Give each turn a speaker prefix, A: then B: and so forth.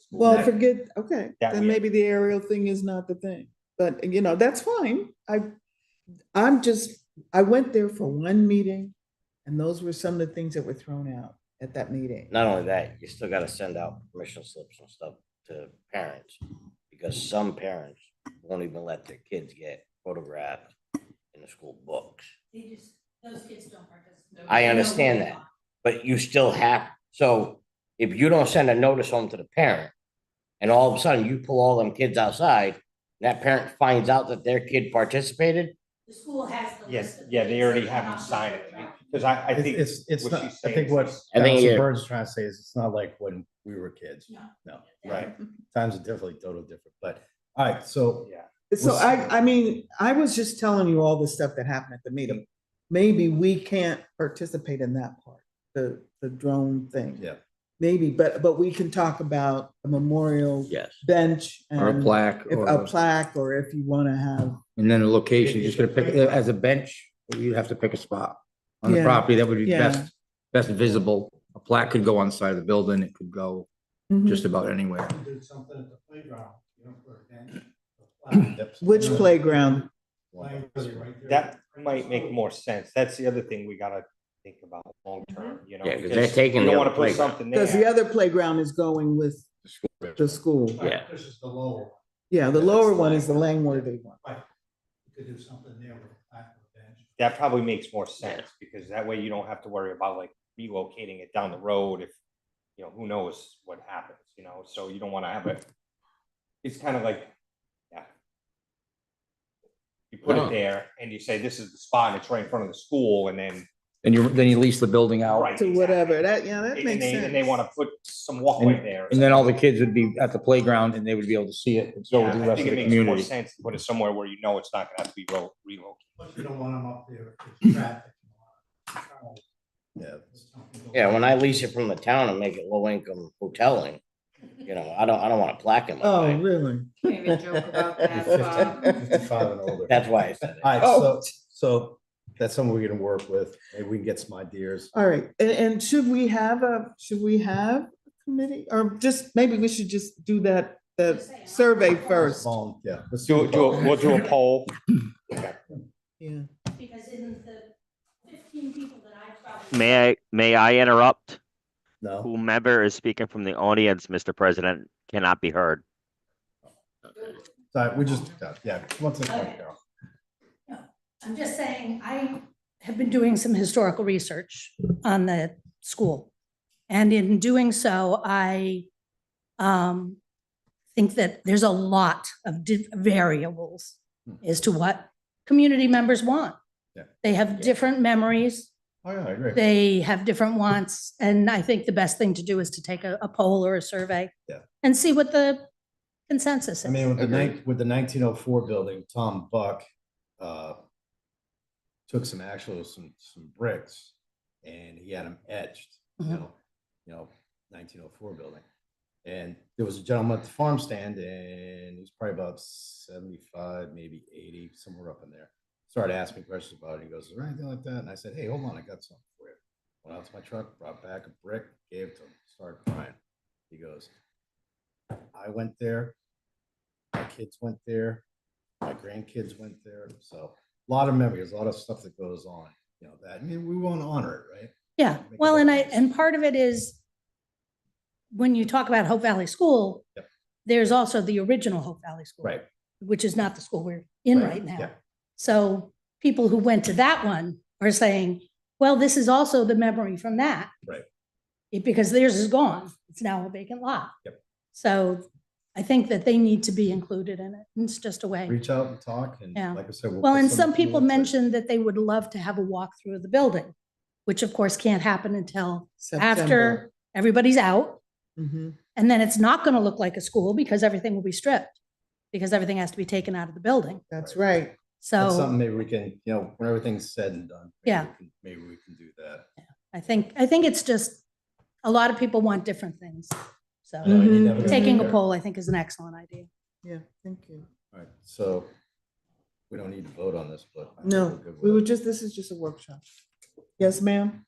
A: school
B: Well,
A: night.
B: forget, okay,
A: That
B: then
A: we-
B: maybe the aerial thing is not the thing, but you know, that's fine. I, I'm just, I went there for one meeting and those were some of the things that were thrown out at that meeting.
C: Not only that, you still gotta send out permission slips and stuff to parents, because some parents won't even let their kids get photographed in the school books.
D: They just, those kids don't participate.
C: I
D: They know
C: understand
D: what's
C: that.
D: on.
C: But you still have, so if you don't send a notice home to the parent, and all of a sudden you pull all them kids outside, that parent finds out that their kid participated,
D: The school has the
A: Yes,
D: list. of
A: yeah, they
D: things
A: already
D: that
A: haven't
D: they're
A: signed
D: not
A: it,
D: allowed.
A: because I, I
E: It's-
A: think.
E: It's, it's
A: what
E: not,
A: she's
E: I
A: saying
E: think
A: is
E: what
A: it's-
C: I think
E: Council
C: you're-
E: Burns trying to say is it's not like when we were kids.
D: No.
E: No,
A: Right,
E: times are definitely totally different, but, all right, so
A: yeah.
B: So
E: We'll
B: I,
E: see.
B: I mean, I was just telling you all the stuff that happened at the meeting. Maybe we can't participate in that part, the, the drone thing.
E: Yeah.
B: Maybe, but, but we can talk about a memorial
F: Yes,
B: bench
F: or a
B: and
F: plaque
B: if
F: or,
B: a
F: a-
B: plaque, or if you want to have
F: and then a location, you're just gonna pick, as a bench, you'd have to pick a spot on the
B: Yeah,
F: property that would be
B: yeah.
F: best, best visible. A plaque could go on the side of the building, it could go just about anywhere.
E: Did something at the playground, you know, for a bench.
B: Which playground?
A: That might make more sense. That's the other thing we gotta think about long term, you know?
C: Yeah, 'cause they're taking
A: You
C: the
A: don't wanna
C: other
A: put
C: playground.
A: something
B: Because Mm-hmm. the
A: there.
B: other playground is going with the school.
C: Yeah.
E: This is the lower,
B: Yeah, the
E: That's
B: lower
E: the
B: one is the Langworthy one.
E: you could do something there with a plaque or bench.
A: That probably makes more sense, because that way you don't have to worry about like relocating it down the road if, you know, who knows what happens, you know, so you don't wanna have it. It's kind of like, yeah. You put it
F: Yeah.
A: there and you say, this is the spot, and it's right in front of the school, and then.
F: And you, then you lease the building
A: Right.
F: out,
B: To
A: exactly.
B: whatever, that, yeah, that
A: And
B: makes
A: they,
B: sense.
A: and they wanna put some walkway there. or
F: and then all the
A: something.
F: kids would be at the playground and they would be able to see it, and so
A: Yeah,
F: would the
A: I
F: rest
A: think
F: of
A: it
F: the
A: makes more
F: community.
A: sense to put it somewhere where you know it's not gonna have to be ro- relocated.
E: But you don't want them up there, it's traffic. Yeah.
C: yeah, when I lease it from the town and make it low income hoteling, you know, I don't, I don't wanna plaque in my
B: Oh,
C: mind.
B: really?
D: Can't even joke about that, um, Bob.
E: Fifty-five and older.
C: That's Oh. why I said it.
E: All right, so, so that's something we're gonna work with, maybe we can get some ideas.
B: All right, and, and should we have a, should we have a committee? Or just, maybe we should just do that, the
D: Just say aye.
B: survey first.
E: Phone, Yeah. let's
A: Do,
E: a
A: do,
E: poll.
A: a- we'll do a poll.
B: Yeah.
D: Because in the fifteen people that I probably.
G: May I may I interrupt?
E: No,
G: Whomever is speaking from the audience, Mr. President, cannot be heard.
E: sorry, we just, yeah, once a month, Carol.
H: I'm just saying, I have been doing some historical research on the school. And in doing so, I um, think that there's a lot of di- variables
A: Hmm.
H: as to what community members want.
E: Yeah.
H: They have different memories,
E: Oh, yeah, I agree.
H: they have different wants, and I think the best thing to do is to take a a poll or a survey.
E: Yeah.
H: And see what the consensus
E: I
H: is.
E: mean, with the nine, with the nineteen oh four building, Tom Buck, uh, took some actual, some, some bricks and he had them etched, you
H: Mhm.
E: know, you know, nineteen oh four building. And there was a gentleman at the farm stand and he's probably about seventy-five, maybe eighty, somewhere up in there. Started asking me questions about it. He goes, is there anything like that? And I said, hey, hold on, I got something for you. Went out to my truck, brought back a brick, gave it to him, started crying. He goes, I went there, my kids went there, my grandkids went there, so a lot of memories, a lot of stuff that goes on, you know, that, I mean, we want to honor it, right?
H: Yeah,
E: Make a
H: well, and I,
E: difference.
H: and part of it is when you talk about Hope Valley School,
E: Yep.
H: there's also the original Hope Valley School.
E: Right.
H: Which is not the school we're in right
E: Yeah,
H: now. So people who went to that one are saying, well, this is also the memory from that.
E: Right.
H: It- Because theirs is gone. It's now a vacant lot.
E: Yep.
H: So I think that they need to be included in it. It's just a way.
E: reach out and talk, and
H: Yeah.
E: like I said. we'll
H: Well,
E: put
H: and
E: some
H: some people
E: tools, but-
H: mentioned that they would love to have a walkthrough of the building, which of course can't happen until
B: September.
H: after everybody's out.
B: Mhm.
H: And then it's not going to look like a school because everything will be stripped, because everything has to be taken out of the building.
B: That's right.
E: That's
H: So
E: something maybe we can, you know, when everything's said and done. maybe
H: Yeah.
E: we can- Maybe we can do that.
H: I think, I think it's just, a lot of people want different things.
E: I know,
H: So
E: and you
B: Mhm.
E: never know
H: Mm-hmm. taking a
E: either.
H: poll, I think, is an excellent idea.
B: Yeah, thank you.
E: All right, so we don't need to vote on this, but. I think we're
B: No,
E: good
B: we
E: with
B: were
E: it.
B: just, this is just a workshop. Yes, ma'am?